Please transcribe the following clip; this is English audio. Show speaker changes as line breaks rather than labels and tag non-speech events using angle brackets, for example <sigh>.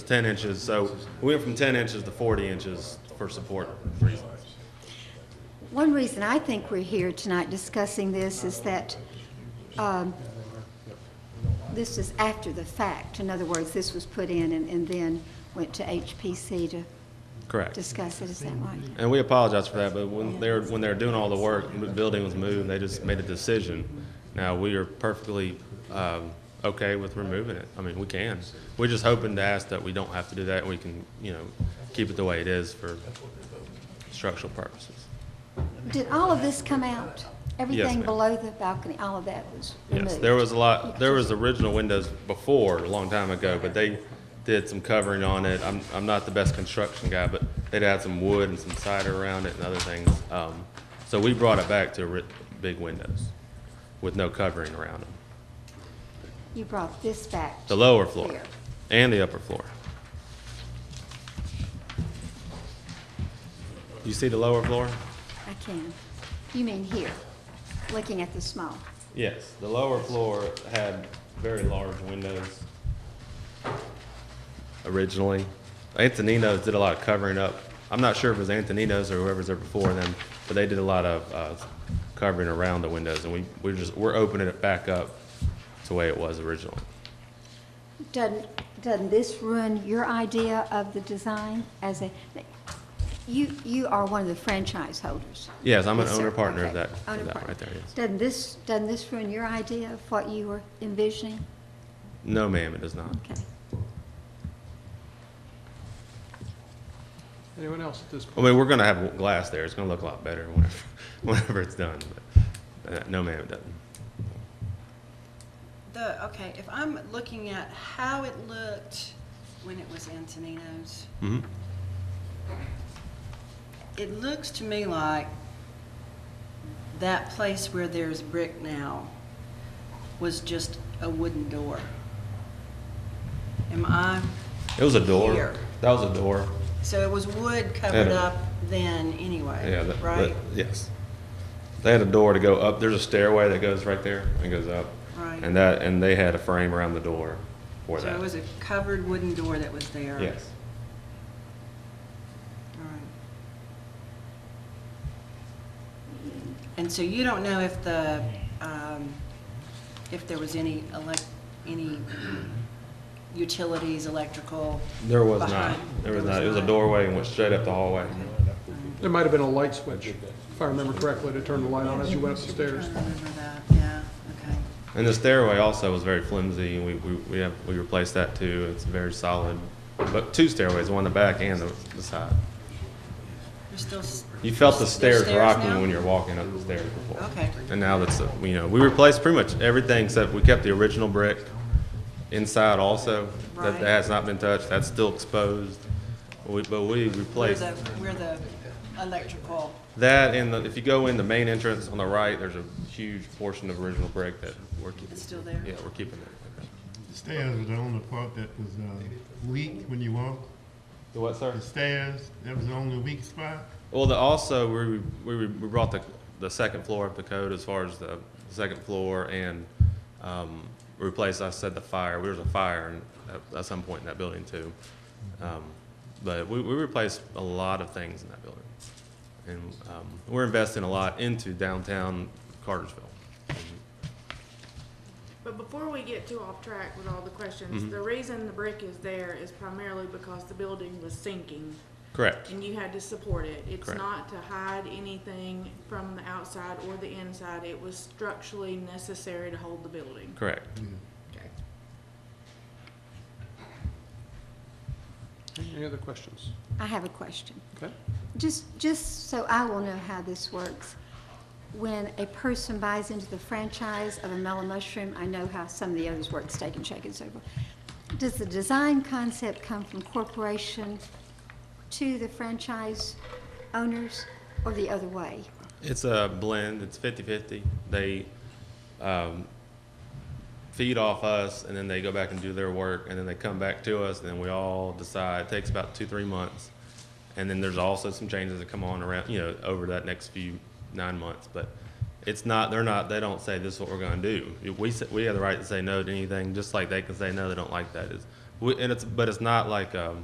ten inches, so we went from ten inches to forty inches for support reasons.
One reason I think we're here tonight discussing this is that um, this is after the fact. In other words, this was put in and and then went to HPC to
Correct.
discuss it, is that right?
And we apologize for that, but when they were, when they were doing all the work, and the building was moved, they just made a decision. Now, we are perfectly, um, okay with removing it. I mean, we can. We're just hoping to ask that we don't have to do that, we can, you know, keep it the way it is for structural purposes.
Did all of this come out? Everything
ma'am.
below the balcony, all of that was removed?
Yes, there was a lot, there was original windows before, a long time ago, but they did some covering on it. I'm, I'm not the best construction guy, but they'd add some wood and some cider around it and other things. Um, so we brought it back to ri- big windows with no covering around them,
You brought this back?
the lower floor
here.
and the upper floor. You see the lower floor?
I can. You mean here, looking at the small?
Yes, the lower floor had very large windows originally. Antonino's did a lot of covering up. I'm not sure if it was Antonino's or whoever's there before them, but they did a lot of uh, covering around the windows, and we, we're just, we're opening it back up to the way it was originally.
Doesn't, doesn't this ruin your idea of the design as a, you, you are one of the franchise holders?
Yes, I'm an
Yes, sir.
owner partner of
Okay.
that,
Owner
of that
partner.
right there, yes.
Doesn't this, doesn't this ruin your idea of what you were envisioning?
No, ma'am, it does not.
Okay.
Anyone else at this point?
I mean, we're gonna have glass there. It's gonna look a lot better whenever, <laughs> whenever it's done, but, uh, no, ma'am, it doesn't.
The, okay, if I'm looking at how it looked when it was Antonino's,
Mhm.
it looks to me like that place where there's brick now was just a wooden door. Am I,
It was a door.
Here.
That was a door.
so it was wood covered
Yeah.
up then anyway,
Yeah, that, that-
right?
yes. They had a door to go up. There's a stairway that goes right there and goes up.
Right.
And that, and they had a frame around the door for
So
that.
it was a covered wooden door that was there.
Yes.
All right. And so you don't know if the, um, if there was any elec, any utilities, electrical?
There was not.
behind-
There was not. It was a doorway and went straight up the hallway.
There might have been a light switch, if I remember correctly, to turn the light on as you went up the
I
stairs.
remember that, yeah, okay.
And the stairway also was very flimsy. We, we, we have, we replaced that too. It's very solid. But two stairways, one in the back and the, the side.
There's still. s-
You felt the
there's
stairs
now?
rocking when you're walking up the stairs before.
Okay,
And now that's, uh, you know, we replaced pretty much everything except we kept the original brick inside also. That,
Right.
that has not been touched, that's still exposed. We, but we
where
replaced
the, where the electrical,
that and the, if you go in the main entrance on the right, there's a huge portion of original brick that we're keeping.
It's still there?
Yeah, we're keeping it.
The stairs was the only part that was uh, weak when you walked.
The what, sir?
The stairs, that was the only weak spot.
Well, the, also, we, we, we brought the, the second floor up to code as far as the second floor and, um, replaced, I said, the fire. There was a fire in- at, at some point in that building too. Um, but we, we replaced a lot of things in that building. And, um, we're investing a lot into downtown Cartersville.
But before we get too off track with all the questions, the reason the brick is there is primarily because the building was sinking
Correct.
and you had to support it. It's
Correct.
not to hide anything from the outside or the inside. It was structurally necessary to hold the building.
Correct.
Okay.
Any other questions?
I have a question.
Okay?
Just, just so I will know how this works. When a person buys into the franchise of a mellow mushroom, I know how some of the others work, steak and shake and so forth. Does the design concept come from corporation to the franchise owners or the other way?
It's a blend. It's 50-50. They um, feed off us, and then they go back and do their work, and then they come back to us, and then we all decide. It takes about two, three months, and then there's also some changes that come on around, you know, over that next few nine months. But it's not. They're not. They don't say this is what we're going to do. We s- we have the right to say no to anything, just like they can say no. They don't like that. Is We, and it's, but it's not like, um,